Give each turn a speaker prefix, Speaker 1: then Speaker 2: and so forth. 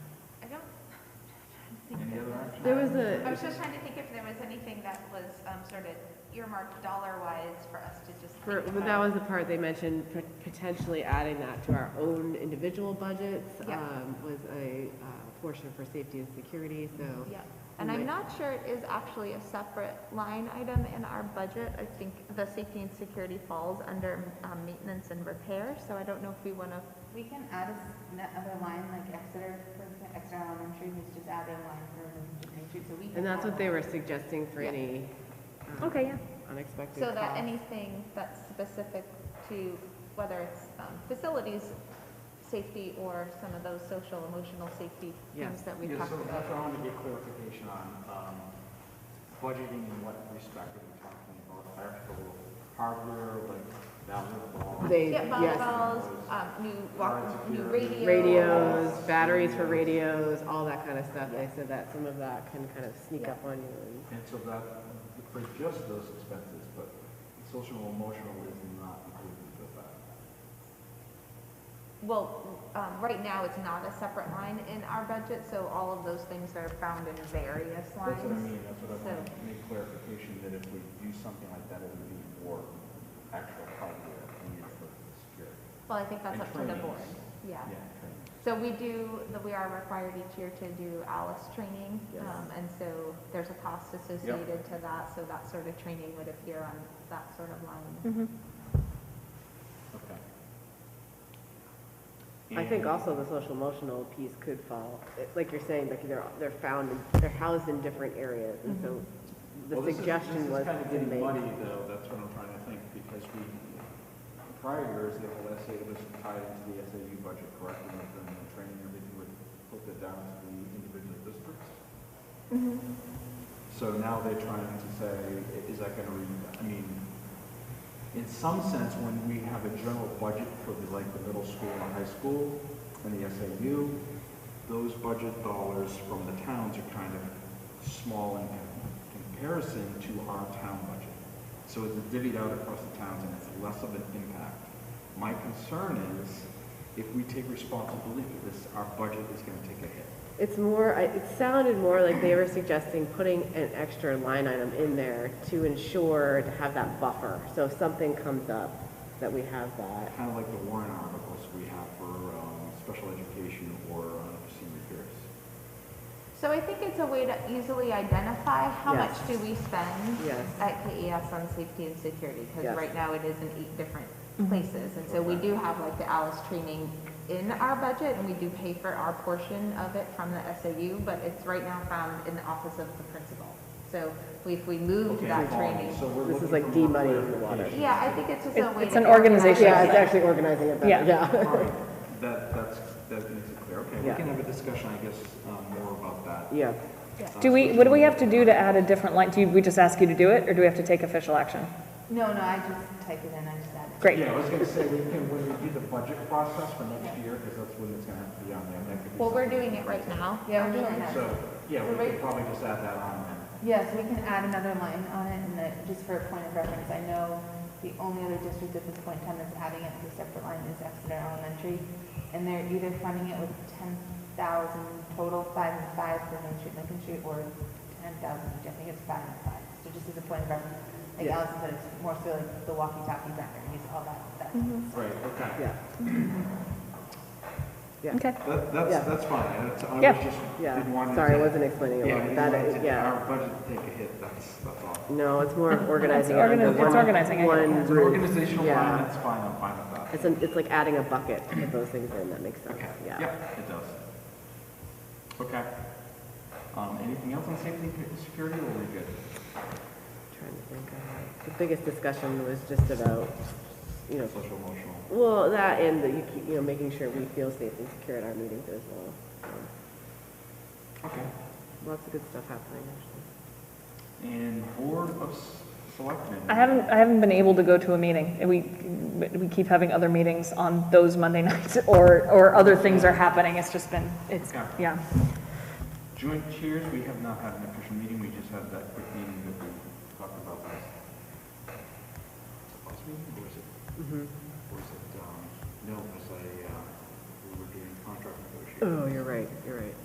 Speaker 1: There was
Speaker 2: I
Speaker 1: a,
Speaker 2: was just trying to think if there was anything that was um, sort of earmarked dollar-wise for us to just
Speaker 1: for,
Speaker 2: think
Speaker 1: but that
Speaker 2: about.
Speaker 1: was the part they mentioned, pot- potentially adding that to our own individual budgets,
Speaker 2: Yeah.
Speaker 1: um, was a, uh, portion for safety and security, so.
Speaker 3: Yeah, and I'm not sure it is actually a separate line item in our budget. I think the safety and security falls under um, maintenance and repair, so I don't know if we want to,
Speaker 4: We can add a s- another line, like Exeter, for example, Exeter Elementary, who's just adding a line for emergency green shoots, so we can.
Speaker 1: And that's
Speaker 4: add
Speaker 1: what they
Speaker 4: that.
Speaker 1: were suggesting for
Speaker 3: Yeah.
Speaker 1: any. um,
Speaker 3: Okay, yeah.
Speaker 1: Unexpected
Speaker 3: so that
Speaker 1: costs.
Speaker 3: anything that's specific to whether it's um, facilities safety or some of those social emotional safety
Speaker 1: Yes.
Speaker 3: things that we
Speaker 5: Yeah,
Speaker 3: talked
Speaker 5: so that's what I
Speaker 3: about.
Speaker 5: wanted to get clarification on, um, budgeting in what respect are we talking about, electrical hardware, like valve balls?
Speaker 1: They,
Speaker 3: Yeah,
Speaker 1: yes,
Speaker 3: volleyball, um, new walk, new radio.
Speaker 1: radios, batteries for radios, all that kind of stuff. They said that some of that can kind of sneak
Speaker 3: Yeah.
Speaker 1: up on you.
Speaker 5: And so that, for just those expenses, but social and emotional is not included with that.
Speaker 3: Well, um, right now, it's not a separate line in our budget, so all of those things are found in various lines.
Speaker 5: That's what I mean, that's what I want
Speaker 3: So-
Speaker 5: to make clarification, that if we do something like that, it would be for actual hardware needed for security.
Speaker 3: Well, I think that's
Speaker 5: And
Speaker 3: up to the
Speaker 5: trainings.
Speaker 3: board, yeah.
Speaker 5: Yeah, training.
Speaker 3: So we do, that we are required each year to do ALIS training,
Speaker 5: Yes.
Speaker 3: um, and so there's a cost associated to that, so that sort of training would appear on that sort of line.
Speaker 5: Okay.
Speaker 1: I think
Speaker 5: And-
Speaker 1: also the social emotional piece could fall, it- like you're saying, like they're, they're found, in- they're housed in different areas. And so
Speaker 5: Well,
Speaker 1: the
Speaker 5: this is-
Speaker 1: suggestion was
Speaker 5: This is kind of
Speaker 1: to
Speaker 5: getting
Speaker 1: make,
Speaker 5: muddy, though, that's what I'm trying to think, because we, prior years, the whole SA was tied into the SAU budget correctly, and then the training and everything would put it down to the individual districts. So now they're trying to say, i- is that gonna, re- I mean, in some sense, when we have a general budget for the, like, the middle school and high school and the SAU, those budget dollars from the towns are kind of small in comparison to our town budget. So it's divvied out across the towns and it's less of an impact. My concern is if we take responsibility for this, our budget is gonna take a hit.
Speaker 1: it's more, I- it sounded more like they were suggesting putting an extra line item in there to ensure, to have that buffer. So if something comes up, that we have that.
Speaker 5: Kind of like the warrant articles we have for, um, special education or uh, unforeseen repairs.
Speaker 3: So I think it's a way to easily identify how much
Speaker 1: Yes.
Speaker 3: do we spend
Speaker 1: Yes.
Speaker 3: at KES on safety and security, because
Speaker 1: Yes.
Speaker 3: right now it is in eight different
Speaker 1: Mm-hmm.
Speaker 3: places. And so we do have like the ALIS training in our budget, and we do pay for our portion of it from the SAU, but it's right now found in the office of the principal. So we- if we moved
Speaker 5: Okay,
Speaker 3: that
Speaker 5: um,
Speaker 3: training.
Speaker 5: so we're
Speaker 1: This is
Speaker 5: looking
Speaker 1: like
Speaker 5: for more
Speaker 1: demoneying the water.
Speaker 5: clarification.
Speaker 3: Yeah, I think it's just a
Speaker 6: It's-
Speaker 3: way.
Speaker 6: it's
Speaker 3: to
Speaker 6: an
Speaker 3: organize-
Speaker 6: organization
Speaker 1: Yeah, it's
Speaker 6: thing.
Speaker 1: actually organizing it better,
Speaker 6: Yeah.
Speaker 1: yeah.
Speaker 5: All right, that, that's, that makes it clear. Okay, we
Speaker 1: Yeah.
Speaker 5: can have a discussion, I guess, um, more about that.
Speaker 1: Yeah,
Speaker 6: Do we, what do we have to do to add a different line? Do we just ask you to do it, or do we have to take official action?
Speaker 4: No, no, I just type it in, I just add it.
Speaker 6: Great.
Speaker 5: Yeah, I was gonna say, we can, when we do the budget process for next year, because that's when it's gonna have to be on there, that could be.
Speaker 3: Well, we're
Speaker 5: something.
Speaker 3: doing it right now.
Speaker 4: Yeah, we're doing that.
Speaker 5: So, yeah, we could probably just add that on there.
Speaker 4: Yes, we can add another line on it, and that, just for a point of reference, I know the only other district at this point in time that's adding it as a separate line is Exeter Elementary, and they're either funding it with ten thousand total, five and five for Main Street, Lincoln Street, or ten thousand, I think it's five and five. So just as a point of reference, like
Speaker 1: Yeah.
Speaker 4: Allison said, it's more so like the walkie-talkie background, use all that stuff.
Speaker 5: Right, okay.
Speaker 1: yeah. Yeah.
Speaker 6: Okay.
Speaker 5: That,
Speaker 1: Yeah.
Speaker 5: that's, that's fine, That's- I
Speaker 6: Yeah.
Speaker 5: was just, didn't
Speaker 1: Yeah,
Speaker 5: want to.
Speaker 1: sorry, I wasn't explaining it
Speaker 5: Yeah,
Speaker 1: well.
Speaker 5: I didn't
Speaker 1: That
Speaker 5: want
Speaker 1: is-
Speaker 5: to-
Speaker 1: yeah.
Speaker 5: our budget to take a hit, that's, that's all.
Speaker 1: No, it's more of organizing. it
Speaker 6: organi-
Speaker 1: under
Speaker 6: it's
Speaker 1: one-
Speaker 6: organizing, I get it.
Speaker 1: One
Speaker 5: It's an
Speaker 1: roof.
Speaker 5: organizational
Speaker 1: yeah.
Speaker 5: line, that's fine, I'm fine with that.
Speaker 1: It's, an- it's like adding a bucket to put those things in, that makes sense,
Speaker 5: Okay,
Speaker 1: yeah.
Speaker 5: yep, it does. Okay. Um, anything else on safety and security, or are we good?
Speaker 1: Trying to think of- The biggest discussion was just about, you know,
Speaker 5: Social emotional.
Speaker 1: well, that and the, you keep- you know, making sure we feel safe and secure at our meetings as well. Um,
Speaker 5: Okay.
Speaker 1: Lots of good stuff happening, actually.
Speaker 5: And Board of S- Selectmen.
Speaker 6: I haven't, I haven't been able to go to a meeting. We, we keep having other meetings on those Monday nights, or, or other things are happening. It's just been, it's,
Speaker 5: Yeah.
Speaker 6: yeah.
Speaker 5: Joint Chairs, we have not had an official meeting, we just had that quick meeting that we talked about last. Last meeting, or was it,
Speaker 1: Mm-hmm.
Speaker 5: or was it, um, no, it was a, uh, we were doing contract negotiations.
Speaker 1: Oh, you're right, you're right.